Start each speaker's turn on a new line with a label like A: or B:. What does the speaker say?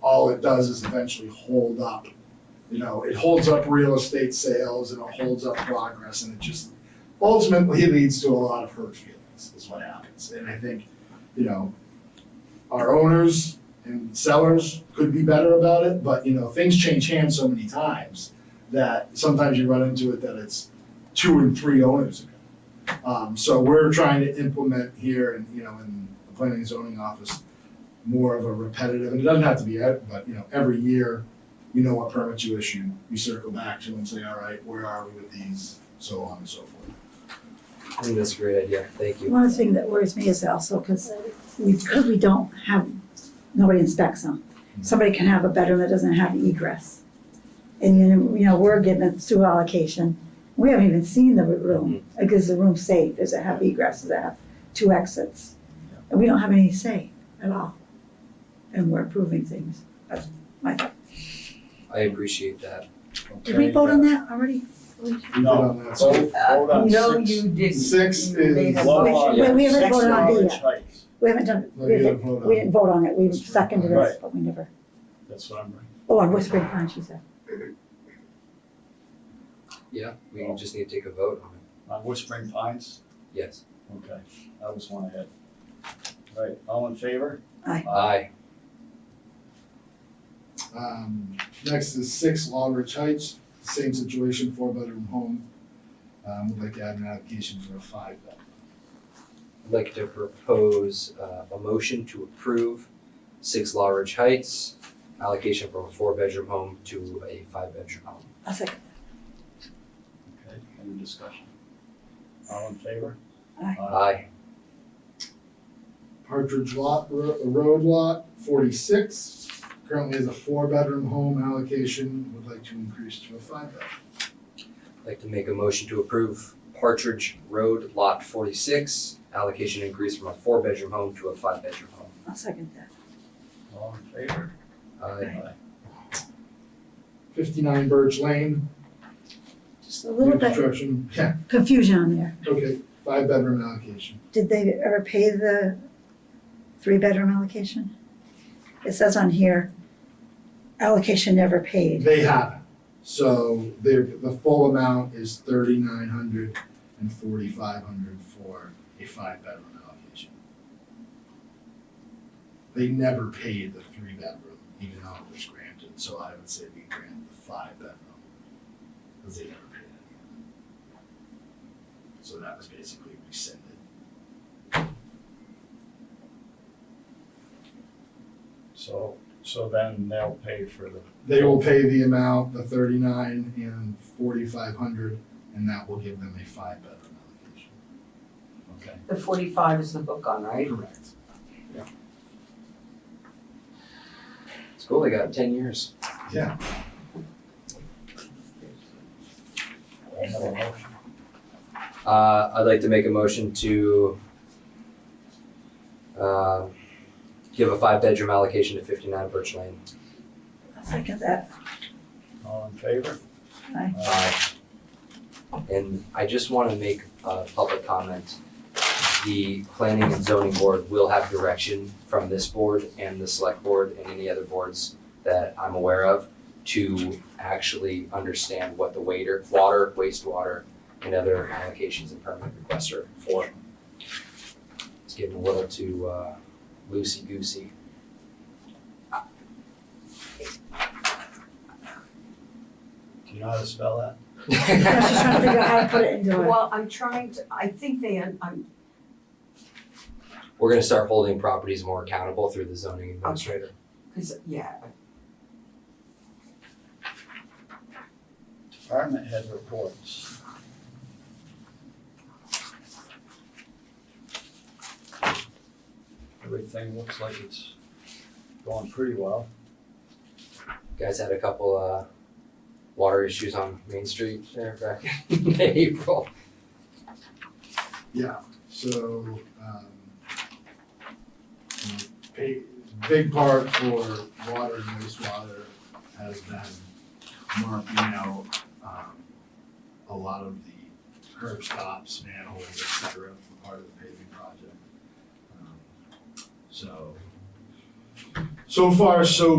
A: all it does is eventually hold up. You know, it holds up real estate sales and it holds up progress and it just ultimately leads to a lot of hurt feelings is what happens. And I think, you know, our owners and sellers could be better about it, but you know, things change hands so many times that sometimes you run into it that it's two and three owners ago. Um, so we're trying to implement here and, you know, in the planning and zoning office, more of a repetitive, and it doesn't have to be, it, but, you know, every year, you know what permit you issue, you circle back to and say, all right, where are we with these, so on and so forth.
B: I think that's a great idea, thank you.
C: One thing that worries me is also because we, because we don't have, nobody inspects them.
A: Mm-hmm.
C: Somebody can have a bedroom that doesn't have egress. And you, you know, we're given a through allocation, we haven't even seen the room,
A: Mm-hmm.
C: like is the room safe, does it have egress, does it have two exits? And we don't have any say at all, and we're approving things, that's my thought.
B: I appreciate that.
C: Did we vote on that already?
A: We've been on that,
D: Uh,
A: so-
D: Hold on,
E: No,
D: six.
E: you didn't.
A: Six
E: You
A: is-
E: made a
D: Low
E: motion.
D: on
C: Wait, we haven't
D: six
C: voted on D
D: knowledge
C: yet.
D: heights.
C: We haven't done,
A: No,
C: we
A: you didn't
C: didn't,
A: vote on
C: we
A: it.
C: didn't vote on it, we seconded
D: Right.
C: it, but we never,
D: That's what I'm bringing.
C: oh, on Whispering Pines, you said.
B: Yeah, we just need to take a vote on it,
D: On Whispering Pines?
B: yes.
D: Okay, I was one ahead. Right, all in favor?
C: Aye.
B: Aye,
A: Um, next is six Longridge Heights, same situation, four bedroom home. Um, would like to add an application for a five bed.
B: I'd like to propose uh, a motion to approve Six Law Ridge Heights allocation from a four-bedroom home to a five-bedroom home.
C: A second.
D: Okay, any discussion? All in favor? Uh,
C: Aye.
B: Aye,
A: Partridge Lot, Ro- Road Lot forty-six, currently is a four bedroom home allocation, would like to increase to a five bed.
B: I'd like to make a motion to approve Partridge Road Lot forty-six allocation increase from a four-bedroom home to a five-bedroom home.
C: I'll second that.
D: All in favor?
B: Aye,
A: Fifty-nine Birch Lane,
C: Just a
A: new
C: little bit
A: construction, yeah,
C: confusion on there.
A: okay, five bedroom allocation.
C: Did they ever pay the three-bedroom allocation? It says on here, allocation never paid.
A: They haven't, so their, the full amount is thirty-nine hundred and forty-five hundred for a five bedroom allocation. They never paid the three bedroom, even though it was granted, so I would say we grant the five bedroom. Cause they never paid any of it. So that was basically rescinded.
D: So, so then they'll pay for the.
A: They will pay the amount, the thirty-nine and forty-five hundred, and that will give them a five bedroom allocation.
D: Okay,
E: The forty-five is the book on, right?
A: Correct.
B: it's cool, they got ten years.
A: Yeah.
D: I have a motion.
B: Uh, I'd like to make a motion to um, give a five-bedroom allocation to fifty-nine Birch Lane.
C: I'll second that.
D: All in favor?
C: Aye.
B: Uh, And I just want to make a public comment. The planning and zoning board will have direction from this board and the select board and any other boards that I'm aware of to actually understand what the waiter, water, wastewater, and other allocations and permit requests are for. It's getting a little too uh, loosey-goosey.
D: Do you know how to spell that?
C: I was just trying to figure out how to put it into it.
E: Well, I'm trying to, I think they, I'm,
B: We're gonna start holding properties more accountable through the zoning administrator.
E: because, yeah,
D: Department head reports. Everything looks like it's going pretty well.
B: Guys had a couple uh water issues on Main Street there back in April.
A: Yeah, so, um, you know, big, big part for water and wastewater has been marking out, um, a lot of the curb stops, manholes, et cetera, for part of the paving project. Um, So, so far, so